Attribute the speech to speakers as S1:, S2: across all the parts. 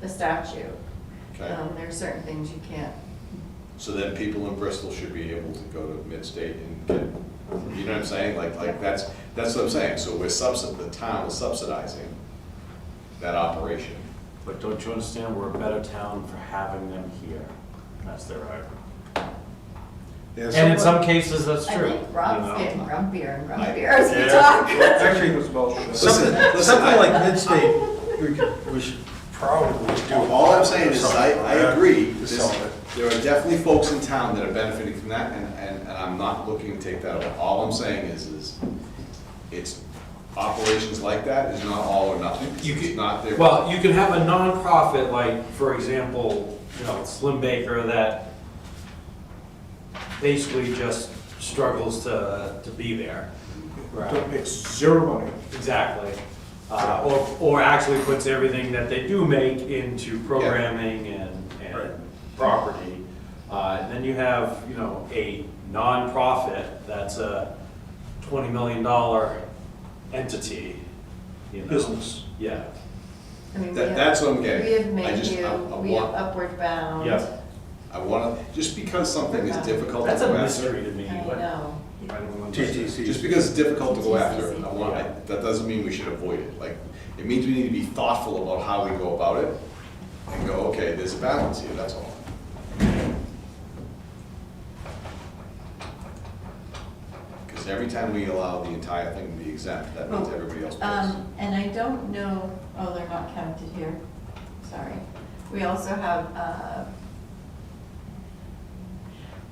S1: the statute.
S2: Okay.
S1: Um, there are certain things you can't,
S2: So then people in Bristol should be able to go to Midstate and get, you know what I'm saying? Like, like, that's, that's what I'm saying. So we're subsid, the town is subsidizing that operation.
S3: But don't you understand, we're a better town for having them here? That's their argument. And in some cases, that's
S1: I
S3: true.
S1: think Rob's
S3: you know?
S1: getting grumpier and
S2: I-
S1: grumpier as we
S3: Yeah.
S1: talk.
S4: Actually, it was bullshit.
S2: Listen,
S4: Something,
S2: listen,
S4: something
S2: I-
S4: like Midstate, we could, we should probably do.
S2: All I'm saying is, I,
S4: something
S2: I
S4: like that
S2: agree,
S4: To
S2: this-
S4: sell it.
S2: there are definitely folks in town that are benefiting from that, and, and, and I'm not looking to take that away. All I'm saying is, is it's, operations like that is not all or nothing, 'cause
S5: You
S2: it's
S5: could-
S2: not their.
S5: Well, you can have a nonprofit, like, for example, you know, Slim Baker that basically just struggles to, to be there.
S4: Don't make zero money.
S5: Exactly. Uh, or, or actually puts everything that they do make into programming and,
S4: Right.
S5: and property. Uh, and then you have, you know, a nonprofit that's a twenty million dollar entity, you know.
S4: Business.
S5: Yeah.
S1: I mean, we
S2: That-
S1: have-
S2: that's what I'm getting.
S1: We have
S2: I just- I- I
S1: menu, we have
S2: want-
S1: upward bound.
S5: Yeah.
S2: I wanna, just because something is difficult to
S5: That's a
S2: grasp,
S5: mystery to me.
S1: I
S5: what-
S1: know.
S5: I don't know.
S2: just
S4: TTC.
S2: because it's difficult to go after, I want, I- that doesn't mean we should avoid it. Like, it means we need to be thoughtful about how we go about it, and go, okay, there's a balance here, that's all. Because every time we allow the entire thing to be exempt, that means everybody else pays.
S1: Oh, Um, and I don't know, oh, they're not counted here, sorry. We also have, uh,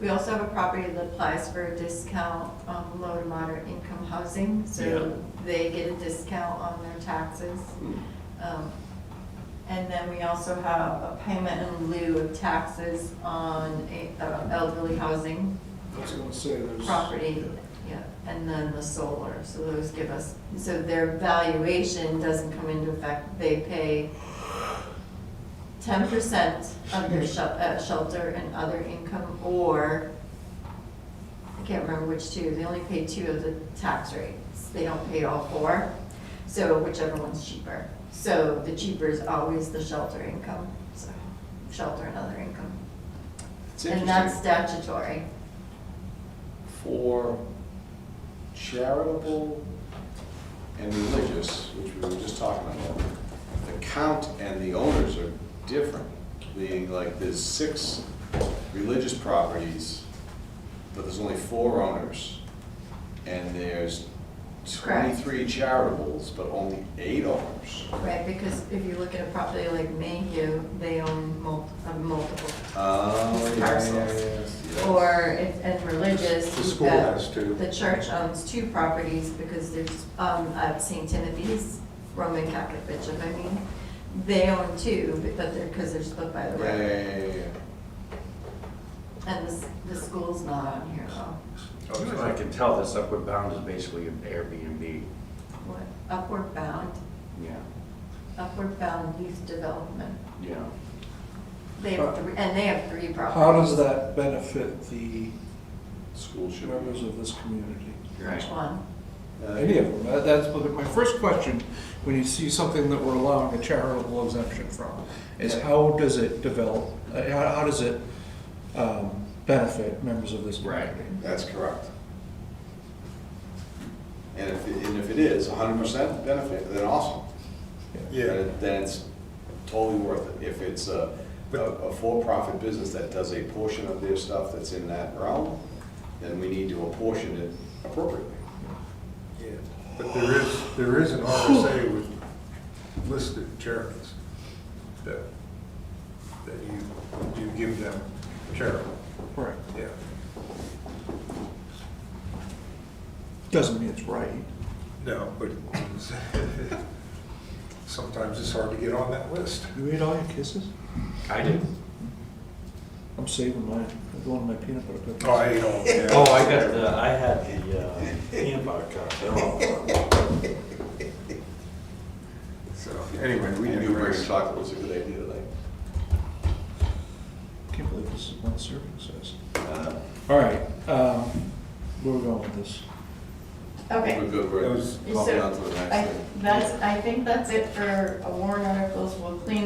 S1: we also have a property that applies for a discount on low to moderate income housing, so they get a discount on their taxes.
S2: Hmm.
S1: Um, And then we also have a payment in lieu of taxes on a- uh, elderly housing
S4: I was gonna say, there's.
S1: property, yeah, and then the solar, so those give us, so their valuation doesn't come into effect, they pay ten percent of their shel- uh, shelter and other income, or, I can't remember which two, they only pay two of the tax rates, they don't pay all four, so whichever one's cheaper. So the cheaper is always the shelter income, so, shelter and other income,
S2: It's
S1: and that's
S2: interesting,
S1: statutory.
S2: for charitable and religious, which we were just talking about, the count and the owners are different. Being like, there's six religious properties, but there's only four owners. And there's
S1: Correct.
S2: twenty-three charitables, but only eight owners.
S1: Right, because if you look at a property like Mayhew, they own mul- uh, multiple.
S2: Oh, yeah, yeah,
S1: Parcels.
S2: yes, yes.
S1: Or, if- and religious,
S4: The
S1: you've
S4: school
S1: got-
S4: has two.
S1: The church owns two properties because there's, um, at St. Timothy's, Roman Catholic bishop, I mean, they own two, but that they're, because they're split by the
S2: Yeah, yeah,
S1: road.
S2: yeah, yeah, yeah.
S1: And the, s- the school's not on here though.
S3: You know, Oh, I can tell this upward bound is basically an Airbnb,
S1: What, Upward Bound,
S3: yeah,
S1: Upward Bound Youth Development.
S3: yeah.
S1: They have three, and they have three properties.
S4: How does that benefit the
S2: School should be.
S4: members of this community?
S1: Which one?
S2: Uh,
S4: Any of them, That- that's what- my first question, when you see something that we're allowing a charitable exemption from, is how does it develop, uh, how, how does it, um, benefit members of this
S3: Right.
S4: community?
S2: That's correct. And if, and if it is hundred percent benefit, then awesome.
S6: Yeah,
S2: Then- Then it's totally worth it. If it's a, a- a for-profit business that does a portion of their stuff that's in that realm, then we need to apportion it appropriately.
S6: yeah, but there is, there is an RSA with listed charities that, that you, you give them charitable,
S4: Right,
S6: yeah.
S4: doesn't mean it's right.
S6: No, but sometimes it's hard to get on that list.
S4: You ate all your kisses?
S3: I did.
S4: I'm saving mine, I'm going to my peanut butter cookies.
S6: Oh, I ate all, yeah.
S5: Oh, I got the, I had the uh, peanut butter cups, they're all gone.
S6: So, anyway, we
S2: And you bring
S6: digress.
S2: chocolate was a good idea tonight.
S4: Can't believe this is one serving size.
S2: Uh,
S4: All right, um, where are we going with this?
S1: Okay.
S2: We're good,
S6: That
S2: we're
S6: was-
S2: bumping on to the
S1: I-
S2: next thing.
S1: That's, I think that's it for warrant articles, we'll clean